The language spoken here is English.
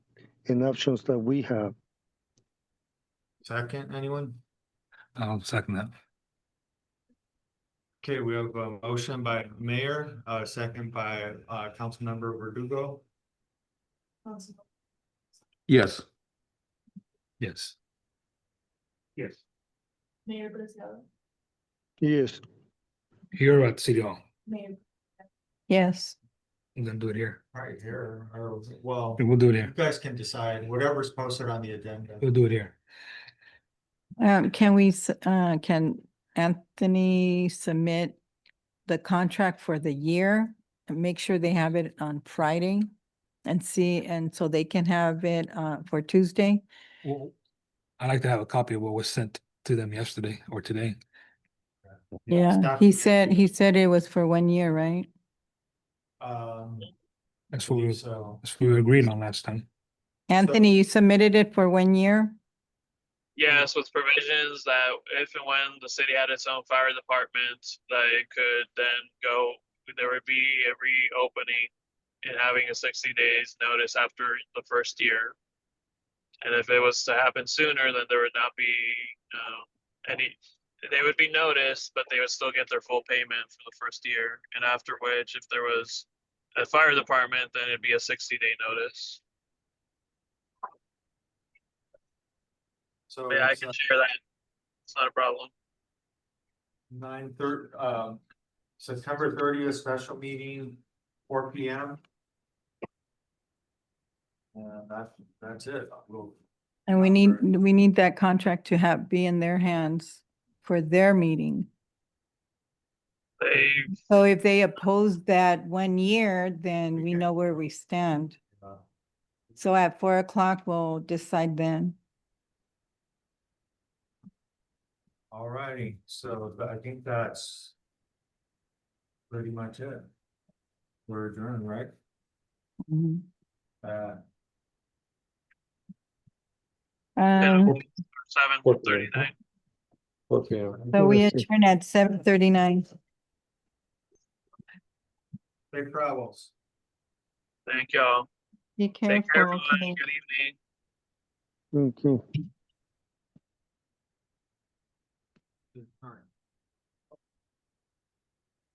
in options that we have. Second, anyone? I'll second that. Okay, we have a motion by Mayor, uh, second by, uh, Councilmember Verdugo. Yes. Yes. Yes. Mayor Brazil, Yes, Here at City Hall, Mayor. Yes, we're gonna do it here. Right here, or, well, We'll do it you here. guys can decide, whatever's posted on the agenda. We'll do it here. um, can we, s- uh, can Anthony submit the contract for the year? And make sure they have it on Friday and see, and so they can have it, uh, for Tuesday? Well, I'd like to have a copy of what was sent to them yesterday or today. Yeah, Stop. he said, he said it was for one year, right? Um, That's what we, that's so, what we agreed on last time. Anthony, you submitted it for one year? Yes, with provisions that if and when the city had its own fire department, that it could then go, there would be a reopening and having a sixty days notice after the first year. And if it was to happen sooner, then there would not be, um, any, they would be noticed, but they would still get their full payment for the first year. And after which, if there was a fire department, then it'd be a sixty day notice. so. But Yeah, I can share that. It's not a problem. Nine thirty, um, September thirtieth, special meeting, four P M. And that's, that's it, we'll, And we Uh, need, for- we need that contract to have, be in their hands for their meeting. They So if they oppose that one year, then we Okay. know where we stand. uh, So at four o'clock, we'll decide then. Alrighty, so th- I think that's. Pretty much it. We're adjourned, right? Mm-hmm. Uh, Um, seven What- thirty-nine. okay. so we adjourn at seven thirty-nine. safe travels. Thank y'all. Be Take care, careful, everyone. Good okay? evening. Thank you. Alright.